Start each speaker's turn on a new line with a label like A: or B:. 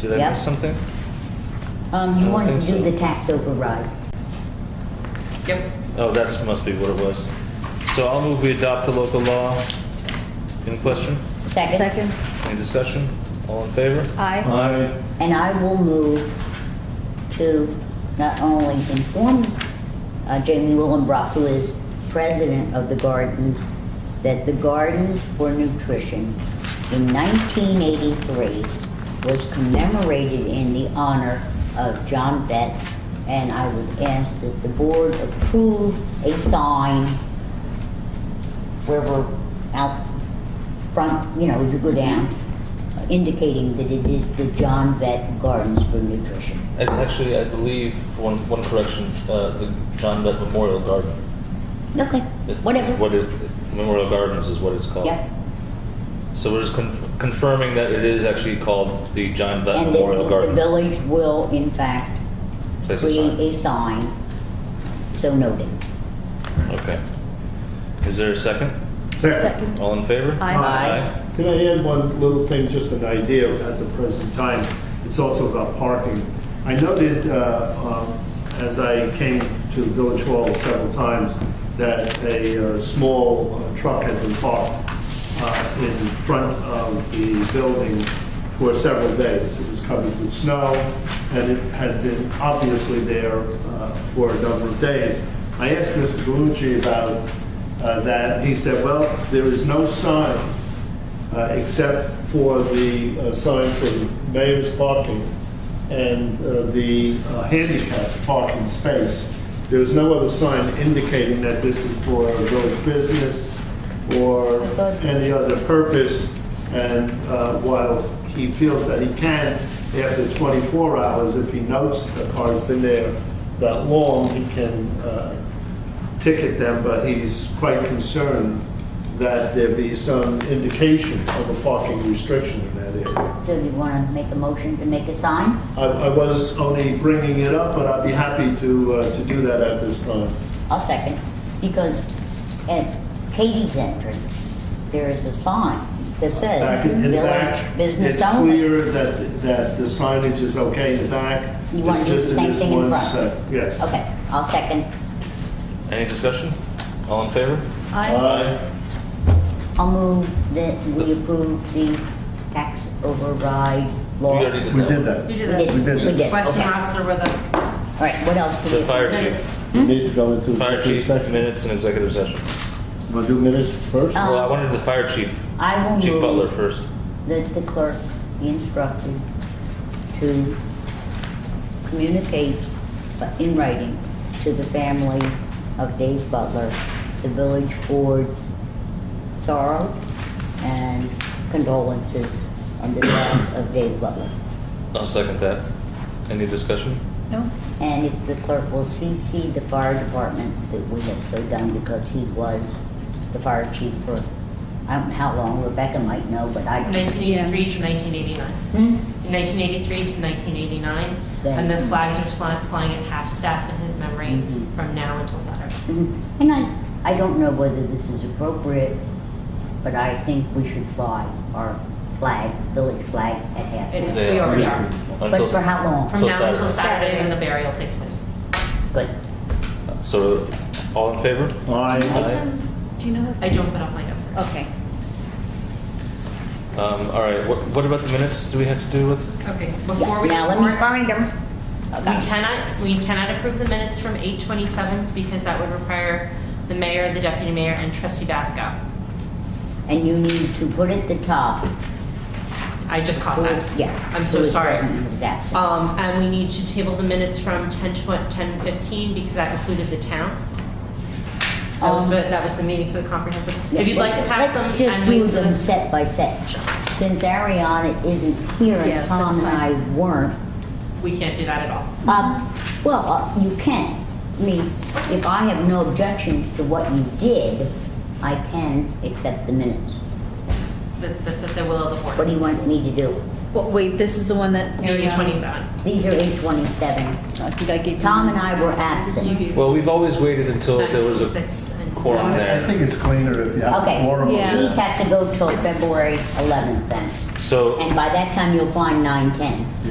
A: Did I
B: Yeah.
A: miss something?
B: Um, you
A: I don't
B: wanted to
A: think
B: do
A: so.
B: the tax override.
C: Yep.
A: Oh, that's, must be what it was. So I'll move we adopt the local law in question.
B: Second?
D: Second.
A: Any discussion? All in favor?
D: Aye.
A: Aye.
B: And I will move to not only inform uh, Jamie Willenbrock, who is president of the Gardens, that the Gardens for Nutrition in 1983 was commemorated in the honor of John Vett, and I would ask that the board approve a sign where we're out front, you know, as you go down, indicating that it is the John Vett Gardens for Nutrition.
A: It's actually, I believe, one, one correction, uh, the John Vett Memorial Garden.
B: Okay,
A: It's-
B: whatever.
A: What it, Memorial Gardens is what it's called.
B: Yeah,
A: So we're just conf- confirming that it is actually called the John Vett
B: and the,
A: Memorial
B: the
A: Gardens.
B: village will in fact
A: Place a
B: create
A: sign.
B: a sign so noted.
A: Okay. Is there a second?
D: Second.
A: All in favor?
D: Aye.
B: Aye.
E: Can I add one little thing, just an idea at the present time? It's also about parking. I noted, uh, um, as I came to the village hall several times, that a uh, small uh, truck had been parked uh, in front of the building for several days. It was covered with snow, and it had been obviously there uh, for a number of days. I asked Mr. Galucci about uh, that. He said, well, there is no sign uh, except for the uh, sign for the mayor's parking and uh, the uh, handicap parking space. There's no other sign indicating that this is for village business or any other purpose. And uh, while he feels that he can, after 24 hours, if he notes the car's been there that long, he can uh, ticket them, but he's quite concerned that there be some indication of a parking restriction in that area.
B: So you wanna make a motion to make a sign?
E: I, I was only bringing it up, but I'd be happy to, uh, to do that at this time.
B: I'll second, because at Katie's entrance, there is a sign that says
E: Back in in the back,
B: village business
E: it's
B: only.
E: clear that, that the signage is okay in the back.
B: You want
E: It's
B: to do
E: just
B: the
E: in
B: same
E: this
B: thing in
E: one
B: front.
E: set. Yes.
B: Okay, I'll second.
A: Any discussion? All in favor?
E: Uh,
D: Aye.
E: Aye.
B: I'll move that we approve the tax override
A: We
B: law.
A: already did
E: We did
A: one.
E: that.
C: You
B: We
C: did
B: did,
C: that.
E: did
B: we did.
C: Question
B: okay.
C: marks are with the
B: All right, what else do we?
A: The fire
C: minutes.
A: chief,
E: We need to go into
A: Hmm? fire
E: executive
A: chief,
E: session.
A: minutes and executive session.
E: We'll do minutes first?
B: Uh,
A: Well, I wanted the fire chief,
B: I will
A: Chief
B: move
A: Butler first.
B: That the clerk be instructed to communicate uh, in writing to the family of Dave Butler, the village board's sorrow and condolences on the death of Dave Butler.
A: I'll second that. Any discussion?
D: No?
B: And if the clerk will CC the fire department that we have so done because he was the fire chief for, I don't know how long, Rebecca might know, but I.
C: 1983 to 1989.
B: Hmm?
C: 1983 to 1989,
B: Then-
C: and the flags are fly- flying at half-staff in his memory
B: Mhm.
C: from now until Saturday.
B: Mhm. And I, I don't know whether this is appropriate, but I think we should fly our flag, village flag at half.
C: It-
A: Yeah.
C: We already are.
A: Until
B: But
A: s-
B: for how long?
C: From
A: Till
C: now until
A: Saturday.
C: Saturday when the burial takes place.
B: Good.
A: So, all in favor?
E: Aye.
D: Um, Do you know?
C: I don't put off my notes.
D: Okay.
A: Um, all right, what, what about the minutes do we have to do with?
C: Okay, before we,
B: Now Oh. let me
C: before-
B: find them.
C: we cannot, we cannot approve the minutes from 8:27 because that would require the mayor, the deputy mayor, and trustee Basco.
B: And you need to put at the top.
C: I just caught
B: who
C: that.
B: is- Yeah.
C: I'm
B: who
C: so
B: is
C: sorry.
B: present and who's absent.
C: Um, and we need to table the minutes from ten tw- ten fifteen because that included the town. That was,
B: Um,
C: the- that was the meeting for the comprehensive,
B: Yeah,
C: if you'd like to
B: let's-
C: pass
B: let's
C: them and
B: just do
C: move to
B: them
C: the.
B: set by set. Since Ariana isn't here
D: Yeah,
B: and Tom
D: that's
B: and I weren't,
C: We can't do that at all.
B: Um, well, uh, you can. I mean, if I have no objections to what you did, I can accept the minutes.
C: That, that's at the will of the
B: What do
C: board.
B: you want me to do?
D: Well, wait, this is the one that. um,
C: Meeting twenty-seven.
B: These are eight twenty-seven.
D: I think I gave you.
B: Tom and I were absent.
A: Well, we've always waited until there was a
C: 9:26 and-
A: quorum
E: I
A: there.
E: think it's cleaner if you have
B: Okay.
E: a quorum.
D: Yeah.
B: These have to go till February eleventh then.
A: So,
B: And by that time, you'll find nine ten.